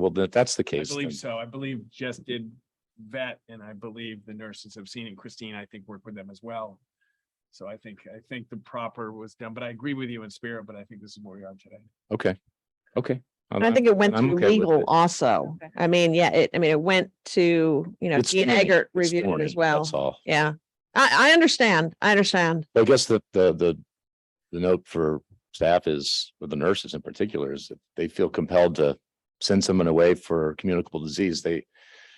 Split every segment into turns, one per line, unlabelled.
Well, if that's the
I
case,
believe
then-
so. I believe Jess did vet and I believe the nurses have seen it. Christine, I think, worked with them as well. So I think, I think the proper was done, but I agree with you in spirit, but I think this is where we are today.
okay, okay. I'm-
And I think it went
I'm
through
okay with
legal
it.
also.
Okay.
I mean, yeah, it, I mean, it went to, you know,
It's
Dean
morning,
Eggert
it's
reviewed it
morning,
as well.
That's all.
Yeah, I, I understand. I understand.
I guess the, the, the, the note for staff is, or the nurses in particular, is that they feel compelled to send someone away for communicable disease. They,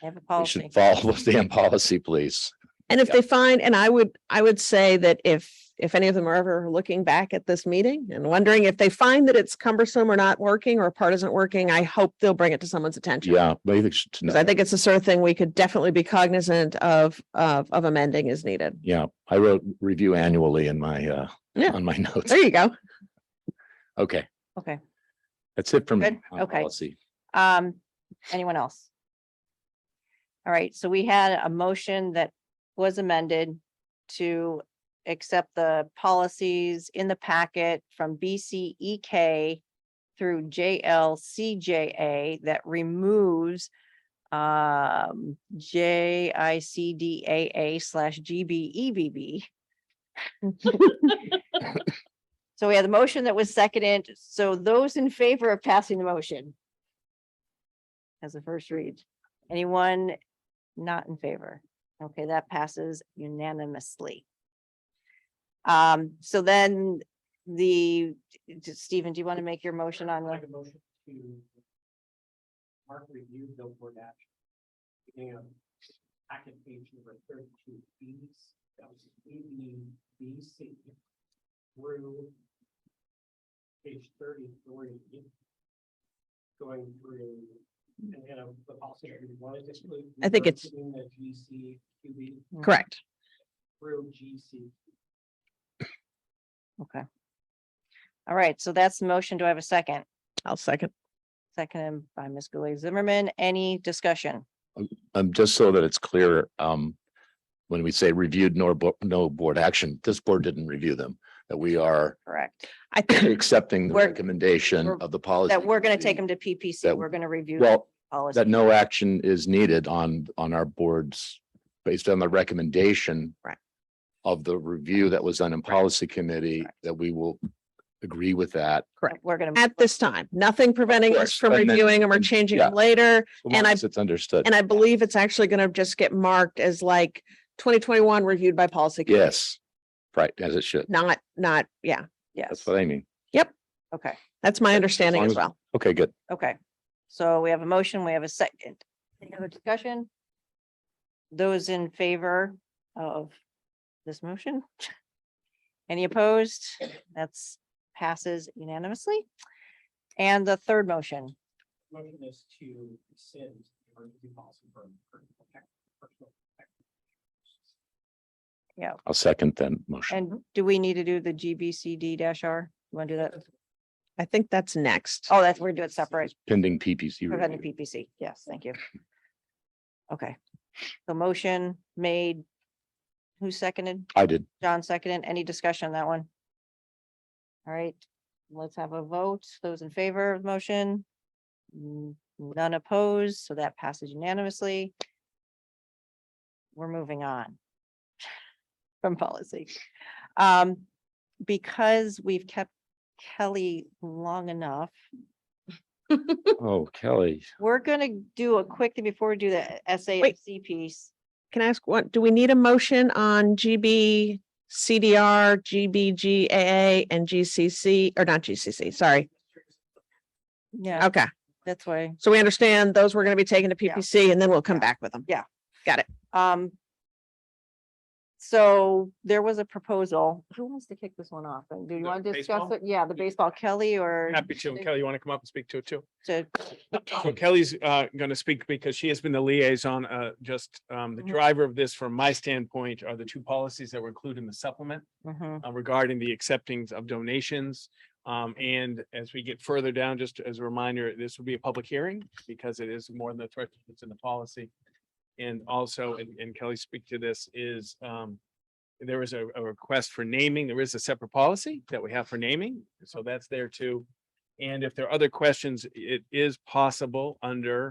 Have a
they
policy.
should follow the damn policy, please.
And if
Yeah.
they find, and I would, I would say that if, if any of them are ever looking back at this meeting and wondering if they find that it's cumbersome or not working or a part isn't working, I hope they'll bring it to someone's attention.
Yeah, but I think, should-
Because I think it's the sort of thing we could definitely be cognizant of, of, of amending as needed.
yeah, I wrote review annually in my, uh,
Yeah.
on my notes.
There you go.
Okay,
Okay,
that's it for me.
Good,
on
okay.
policy.
um, anyone else? All right, so we had a motion that was amended to accept the policies in the packet from BCEK through JLCJA that removes um, JICDAA slash E GBEBB. So we had the motion that was seconded. So those in favor of passing the motion as a first read. Anyone not in favor? Okay, that passes unanimously. Um, so then the, Stephen, do you want to make your motion on the?
Make a motion to mark review billboard action. Beginning on packet page number thirty-two B, that was A B B C through page thirty-three. Going through, and then of the policy, that we wanted to exclude.
I think it's-
reversing The G C Q B
Correct.
through G C.
Okay. All right, so that's the motion. Do I have a second?
I'll second.
Seconded by Ms. Guley Zimmerman. Any discussion?
Um, just so that it's clear, um, when we say reviewed nor, bo- no board action, this board didn't review them, that we are
Correct.
I think
accepting the
We're-
recommendation
we're-
of the policy.
That we're going to take
committee.
them to PPC.
That-
We're going to review. the
Well,
policy.
that no action is needed on, on our boards based on the recommendation
Right.
of the review that was done in policy committee,
Correct.
that we will agree with that.
Correct.
We're going to.
at this time, nothing preventing us
course,
from
but then-
reviewing them or
and-
changing
yeah.
them later. And I-
Once it's understood.
And I believe it's actually going to just get marked as like twenty twenty-one reviewed by policy. committee.
Yes, right, as it should.
Not, not, yeah,
Yes,
That's what I mean.
okay,
that's my understanding
long
as
as-
well.
Okay, good.
okay. So we have a motion, we have a second. Any other discussion? Those in favor of this motion? Any opposed? That's passes unanimously. And the third motion,
Motion is to rescind the emergency policy for. for protect- personal protective purposes.
I'll second then motion.
and do we need to do the GBCD dash R? You want to do that?
I think that's next.
Oh, that's, we're doing it separate,
Pending PPC.
preventing
review.
PPC. Yes, thank you. Okay. The motion made. Who seconded?
I did.
John seconded. Any discussion on that one? All right, let's have a vote. Those in favor of the motion? N- None opposed, so that passes unanimously. We're moving on from policy. Um, because we've kept Kelly long enough,
Oh, Kelly.
we're gonna do a quick thing before we do the SAFC piece.
Can I ask what, do we need a motion on GB, CDR, GBGAA and GCC, or not GCC, sorry.
Yeah,
Okay,
that's why.
so we understand those were going to be taken to
Yeah.
PPC and then we'll come
Yeah.
back with them.
Um. So there was a proposal. Who wants to kick this one off? And do you
The
want to discuss
baseball?
it? Yeah, the baseball Kelly or
Happy to. Kelly, you want to come up and speak to it too?
to,
So Kelly's uh gonna speak because she has been the liaison, uh just um the
Mhm.
driver of this from my standpoint are the two policies that were included in the supplement.
Mhm,
uh, regarding the acceptings of donations. Um, and as we get further down, just as a reminder, this will be a public hearing because it is more than the threat that's in the policy. And also, and- and Kelly speak to this, is, um, there is a, a request for naming. There is a separate policy that we have for naming. So that's there too. And if there are other questions, it is possible under